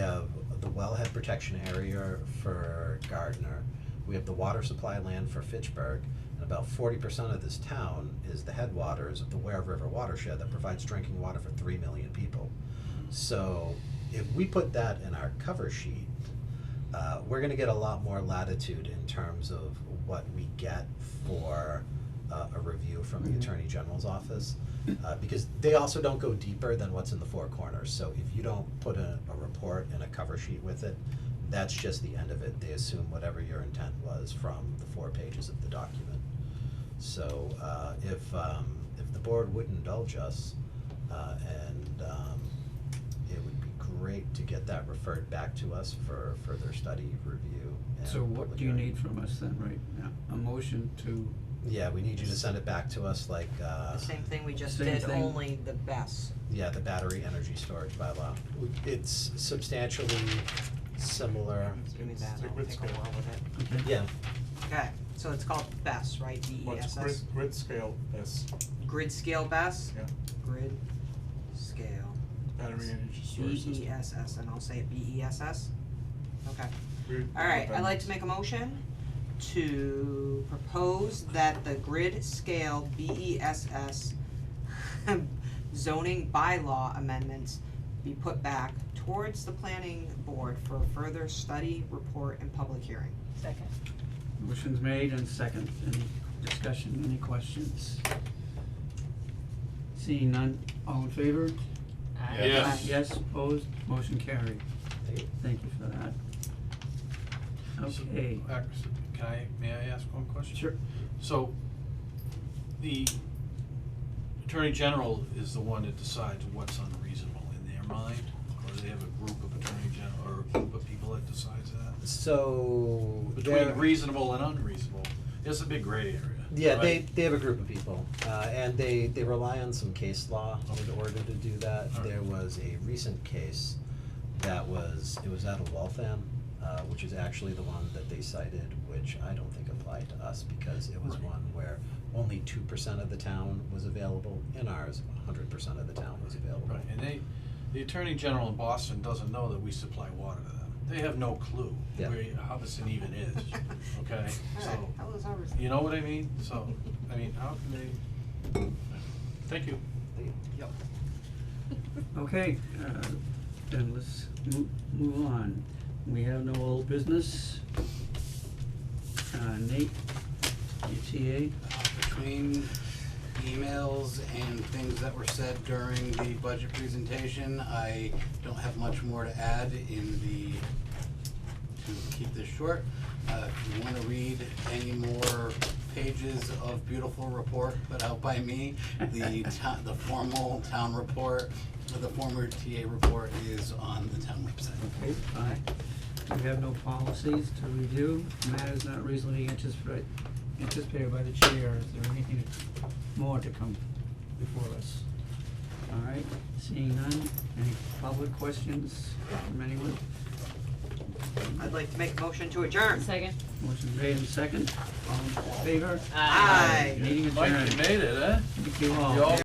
protection area for Gardner. We have the water supply land for Fitchburg, and about forty percent of this town is the headwaters of the Ware River watershed that provides drinking water for three million people. So if we put that in our cover sheet, uh, we're gonna get a lot more latitude in terms of what we get for uh, a review from the Attorney General's office. Uh, because they also don't go deeper than what's in the four corners, so if you don't put a, a report and a cover sheet with it, that's just the end of it, they assume whatever your intent was from the four pages of the document. So, uh, if, um, if the board would indulge us, uh, and, um, it would be great to get that referred back to us for further study, review, and So what public do you hearing. need from us then right now? A motion to, Yeah, we need you to send it back to us like, uh, The same thing we just Same did, thing. only the best. yeah, the battery energy storage bylaw. W- It's substantially Uh, similar, Just Give me that, Stick I'll with take a scale. while with it. okay, yeah, Okay, so it's called BESS, right, B E What's S S? grid, grid scale is Grid scale BESS? Yeah. Grid scale, battery energy storage B system. E S S, and I'll say it B E S S? Okay. Grid Alright, Mm-hmm. I'd like independence. to make a motion to propose that the grid scale BESS zoning bylaw amendments be put back towards the planning board for further study, report, and public hearing. Second. motion's made and second, any discussion, any questions? Seeing none, all in favor? Yes. Yes, opposed, motion carried, Thank you. thank you for that. Okay, So, uh, so Can I, may I ask one question? sure, So, the Attorney General is the one that decides what's unreasonable in their mind? Or they have a group of Attorney General, or a group of people that decides that? So there- Between reasonable and unreasonable, it's a big gray area, Yeah, they, right? they have a group of people, uh, and they, they rely on some case law in Okay. order to do that. All right. There was a recent case that was, it was out of Waltham, uh, which is actually the one that they cited, which I don't think applied to us because it was Right. one where only two percent of the town was available. In ours, hundred percent of the town was available. Right, and they, the Attorney General in Boston doesn't know that we supply water to them. They have no clue Yeah. where Hubbardson even is, okay? Alright, So, that was ours. you know what I mean? So, I mean, how can they? Thank you. okay, uh, then let's mo- move on, we have no old business. Uh, Nate, E UTA, Uh, Between emails and things that were said during the budget presentation, I don't have much more to add in the, to keep this short. Uh, if you wanna read any more pages of beautiful report put out by me, the town, the formal town report, the former TA report is on the town website. Okay, aye. We have no policies to review. Matters not reasonably anticipate- anticipated by the chair. Is there anything more to come before us? All right, seeing none. Any public questions from anyone? I'd like to make a motion to adjourn. Second. Motion made and second. All in favor? Aye. Meeting Mike, you adjourned. made it, eh? Oh, Thank you You all